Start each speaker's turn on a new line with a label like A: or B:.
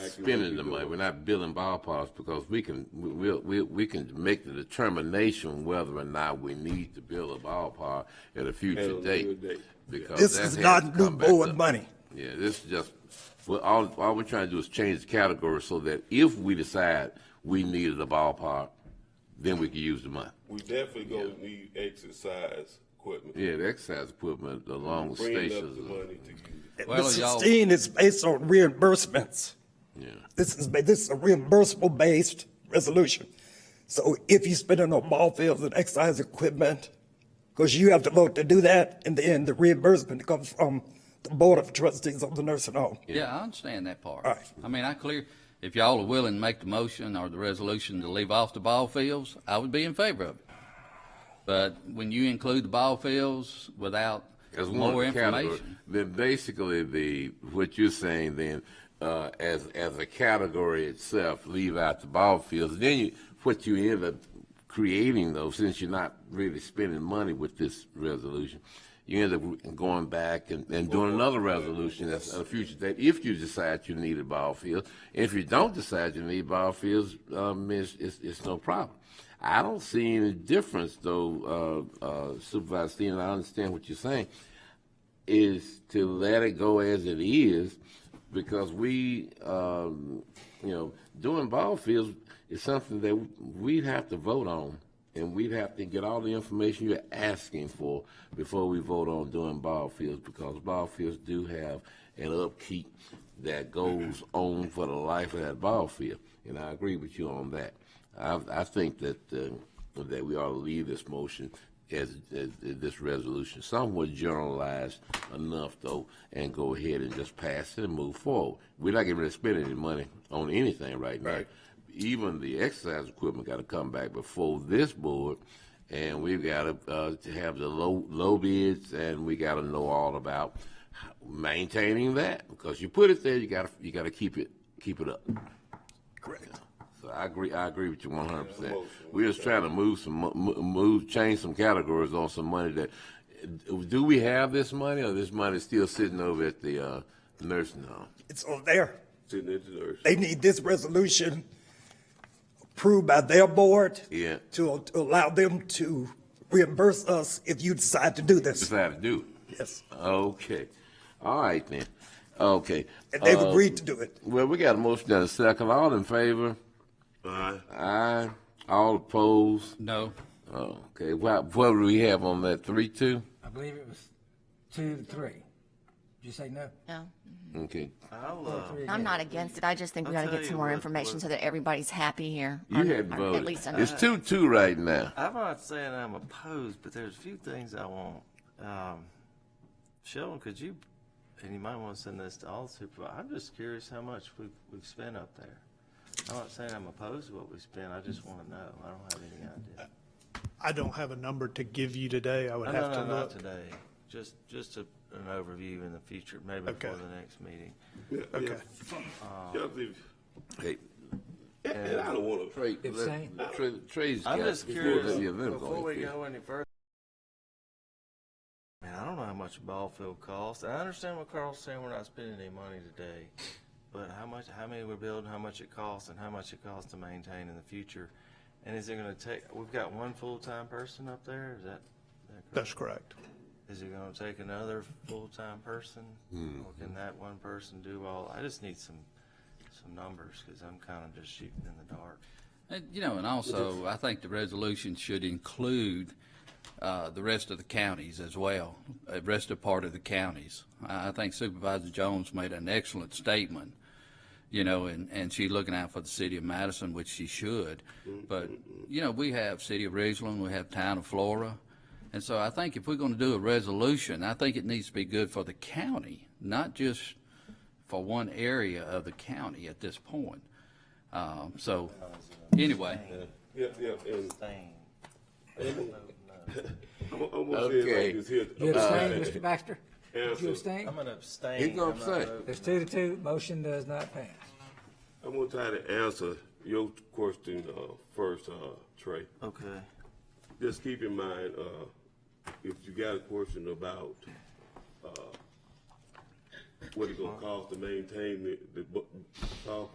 A: exactly where
B: spending
A: you
B: the
A: go.
B: money. We're not building ballparks because we can, we, we'll- we, we can make the determination whether or not we need to build a ballpark at a
A: At a
B: future
A: later
B: date.
A: date.
B: Because
C: This
B: that
C: is
B: has
C: not
B: come
C: new
B: back
C: board
B: up.
C: money.
B: Yeah, this is just, well, all, all we're trying to do is change the category so that if we decide we needed a ballpark, then we can use the money.
D: We definitely gonna need exercise equipment.
B: Yeah, the exercise equipment along with
D: Bringing up
B: stations.
D: the
B: and-
D: money to use it.
C: The
E: Well, y'all-
C: 16 is based on reimbursements.
B: Yeah.
C: This is, ba- this is a reimbursable-based resolution. So if you spend it on ball fields and exercise equipment, because you have to vote to do that, and then the reimbursement comes from the Board of Trustees of the nursing home.
E: Yeah, I understand that part.
C: All right.
E: I mean, I clear, if y'all are willing to make the motion or the resolution to leave off the ball fields, I would be in favor of it. But when you include the ball fields without
B: as one
E: more
B: category,
E: information,
B: then basically the what you're saying then uh, as as a category itself, leave out the ball fields. Then you, what you end up creating though, since you're not really spending money with this resolution, you end up going back and, and doing another resolution that's a future date if you decide you need a ball field. If you don't decide you need ball fields, um, it's, it's it's no problem. I don't see any difference though, uh, uh, Supervisor Steen. I understand what you're saying is to let it go as it is because we, um, you know, doing ball fields is something that we'd have to vote on and we'd have to get all the information you're asking for before we vote on doing ball fields because ball fields do have an upkeep that goes on for the life of that ball field. And I agree with you on that. I, I think that, uh, that we ought to leave this motion as, as this resolution, somewhat generalized enough though, and go ahead and just pass it and move forward. We're not getting ready to spend any money on anything right now.
D: Right.
B: Even the exercise equipment got to come back before this board, and we've got to, uh, to have the low, low bids, and we got to know all about maintaining that, because you put it there, you got to, you got to keep it, keep it up.
C: Correct.
B: So I agree. I agree with you one hundred percent.
D: emotional.
B: We're just trying to move some, mo- mo- move, change some categories on some money that. Do we have this money, or this money still sitting over at the uh, nursing home?
C: It's on there.
D: Sitting at the nurse.
C: They need this resolution approved by their board
B: Yeah.
C: to, to allow them to reimburse us if you decide to do this.
B: Decide to do. it.
C: Yes.
B: Okay. All right then. Okay.
C: And they've
B: Uh,
C: agreed to do it.
B: Well, we got a motion and a second. All in favor?
D: Aye.
B: Aye. All opposed?
E: no.
B: Oh, okay. What, what do we have on that? Three, two?
F: I believe it was two to three. Did you say no?
G: No,
B: Okay.
A: I'll, uh,
F: Three
G: I'm
F: again.
G: not against it. I just think we
A: I'll
G: gotta
A: tell
G: get some
A: you
G: more
A: what-
G: information
A: what-
G: so that everybody's happy here.
B: You
G: Or-
B: hadn't
G: or
B: voted.
G: At least. I'm-
B: It's two, two right now.
A: I'm not saying I'm opposed, but there's a few things I want. Um, Sheldon, could you, and you might want to send this to all supervisors. I'm just curious how much we've, we've spent up there. I'm not saying I'm opposed to what we spent. I just want to know. I don't have any idea.
H: I don't have a number to give you today. I would
A: No,
H: have
A: no, no,
H: to
A: not
H: look.
A: today. Just, just a- an overview in the future, maybe
H: Okay.
A: before the next meeting.
H: Okay.
B: Um,
D: Y'all leave-
B: Hey,
D: And I don't wanna,
B: Trey,
F: It's
B: let-
F: saying-
B: Trey, Trey's
A: I'm
B: got-
A: just
B: before
A: curious,
B: the event
A: before we
B: going.
A: go any further, man, I don't know how much a ball field costs. I understand what Carl's saying, we're not spending any money today. But how much, how many we're building, how much it costs, and how much it costs to maintain in the future? And is it gonna take, we've got one full-time person up there, is that? that correct?
H: That's correct.
A: Is it gonna take another full-time person? Or can that one person do all, I just need some, some numbers, cause I'm kinda just shooting in the dark.
E: And, you know, and also, I think the resolution should include uh, the rest of the counties as well, the rest of part of the counties. I I think Supervisor Jones made an excellent statement, you know, and, and she's looking out for the city of Madison, which she should. But, you know, we have city of Ridgeland, we have town of Flora. And so I think if we're going to do a resolution, I think it needs to be good for the county, not just for one area of the county at this point. Um, So, anyway.
D: yeah, yeah, and
A: Thing.
D: I'm, I'm gonna say
B: Okay.
D: it like this here.
F: You abstain, Mr. Baxter?
D: Yeah,
F: Did you
D: so-
F: abstain?
A: I'm gonna abstain. uh,
B: He gonna
A: I'm not
B: abstain.
A: voting.
F: It's two to two, motion does not pass.
D: I'm gonna try to answer your question uh, first, uh, Trey.
A: Okay.
D: Just keep in mind, uh, if you got a question about uh, what it gonna cost to maintain the, the bu- ballpark